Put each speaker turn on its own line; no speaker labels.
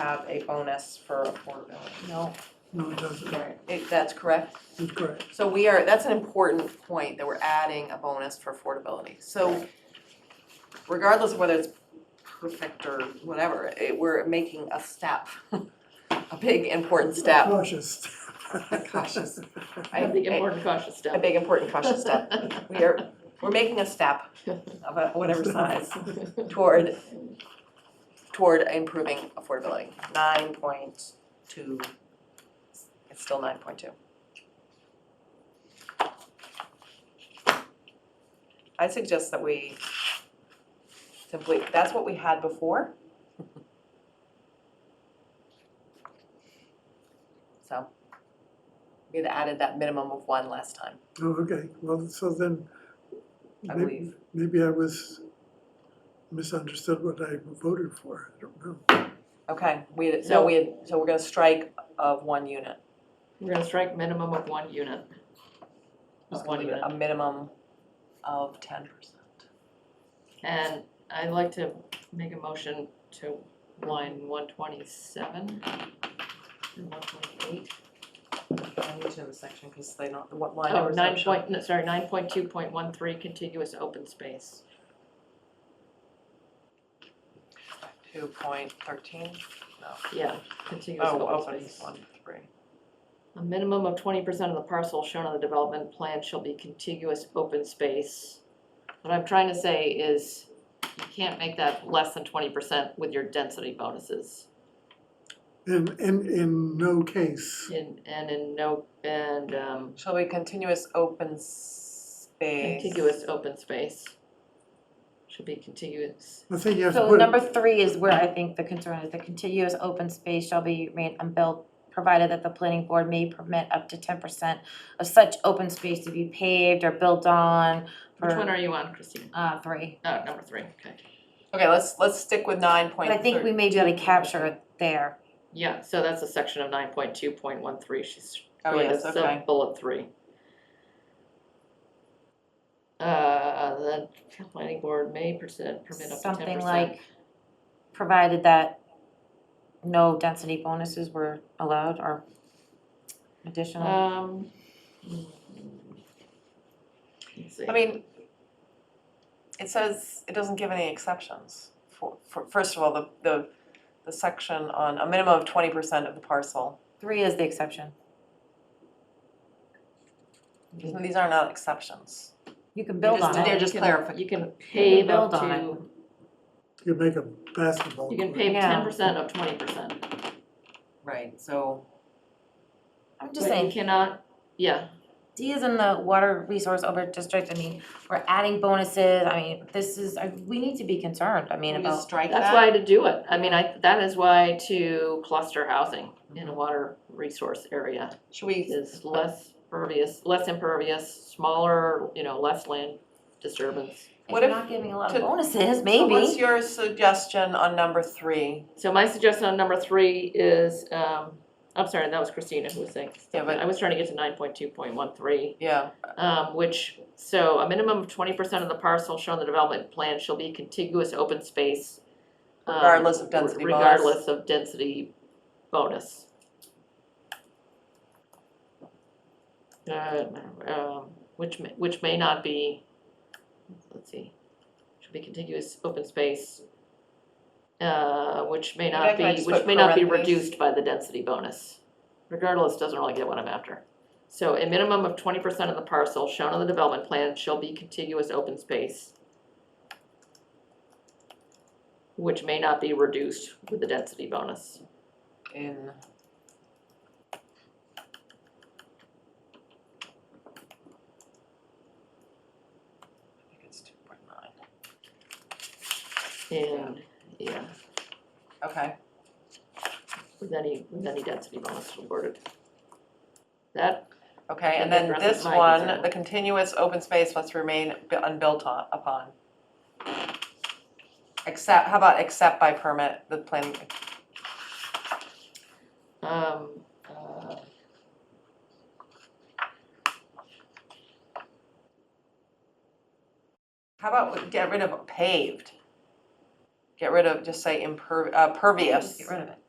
have a bonus for affordability.
No,
No, it doesn't,
Right. That's correct.
that's correct.
So we are, that's an important point, that we're adding a bonus for affordability. So regardless of whether it's perfect or whatever, it, we're making a step, a big important step,
Cautious.
Cautious.
I
I-
think
I-
important cautious
a
step.
big important cautious step. We are, we're making a step of a- whatever size toward, toward improving affordability. Nine point two, it's still nine point two. I suggest that we simply, that's what we had before. So, we'd added that minimum of one last time,
Oh, okay, well, so then.
I
may-
believe.
Maybe I was misunderstood what I voted for, I don't know.
Okay, we, so we, had- so we're gonna strike of one unit.
We're gonna strike minimum of one unit. Just one unit.
A minimum of ten percent.
And I'd like to make a motion to line one twenty-seven and one twenty-eight.
I need to in the section, because they don't, what line
Oh,
numbers don't
nine
show.
point, no, sorry, nine point two point one three, contiguous open space.
Two point thirteen,
Yeah, contiguous
oh,
open
open,
space.
one, three.
A minimum of twenty percent of the parcel shown on the development plan shall be contiguous open space. What I'm trying to say is, you can't make that less than twenty percent with your density bonuses.
In, in, in no case,
In, and in no, and, um,
Shall we continuous open space?
contiguous open space. Should be contiguous,
I think you have to
So
put,
number
it-
three is where I think the concern is, the contiguous open space shall be remain unbuilt, provided that the planning board may permit up to ten percent of such open space to be paved or built on for,
which one are you on, Christine?
uh, three.
Oh, number three, okay,
Okay, let's, let's stick with nine point
But I think we
thirty,
may be able to capture it there.
yeah, so that's a section of nine point two point one three, she's
Oh,
going to
yes, okay.
sub-bullet three. Uh, the planning board may percent, permit up to ten percent.
Something like, provided that no density bonuses were allowed or additional.
Um. mm, Let's see.
I mean, it says, it doesn't give any exceptions. For, for, first of all, the, the, the section on a minimum of twenty percent of the parcel.
Three is the exception. Mm-hmm.
These are not exceptions.
You can build on
just- they're
it.
just
You can-
clarifi-
You can pave up
build on it.
to,
you make a basketball
you can
court.
pave
Yeah.
ten percent of twenty percent.
Right, so.
I'm just
But
saying.
You cannot, yeah,
D is in the water resource over district, I mean, we're adding bonuses, I mean, this is, I- we need to be concerned, I mean,
Can we just
about,
strike that?
that's why to do it, I mean, I, that is why to cluster housing in a water resource area
Should we,
is less pervious, less impervious, smaller, you know, less land disturbance.
if
What
you're
if-
not giving a lot
to-
of bonuses,
so what's
maybe,
your suggestion on number three?
So my suggestion on number three is, um, I'm sorry, that was Christina who was saying,
Yeah, but-
I was trying to get to nine point two point one three.
Yeah,
Um, which, so a minimum of twenty percent of the parcel shown in the development plan shall be contiguous open space. um,
Regardless of density bonus.
Regardless of density bonus. Uh, um, which may, which may not be, let's see, should be contiguous open space. Uh, which may
Maybe I
not
can
be,
just
which
put
may not be
parentheses.
reduced by the density bonus. Regardless, doesn't really get what I'm after. So a minimum of twenty percent of the parcel shown on the development plan shall be contiguous open space, which may not be reduced with the density bonus.
in. I think it's two point nine.
And, yeah,
Okay,
with any, with any density bonus awarded. That,
okay, and
That
then
addresses
this
my
one,
concern.
the continuous open space must remain bu- unbuilt on, upon. Except, how about except by permit, the plan,
um, uh.
how about we get rid of paved? Get rid of, just say imper, uh, pervious.
just get rid of it.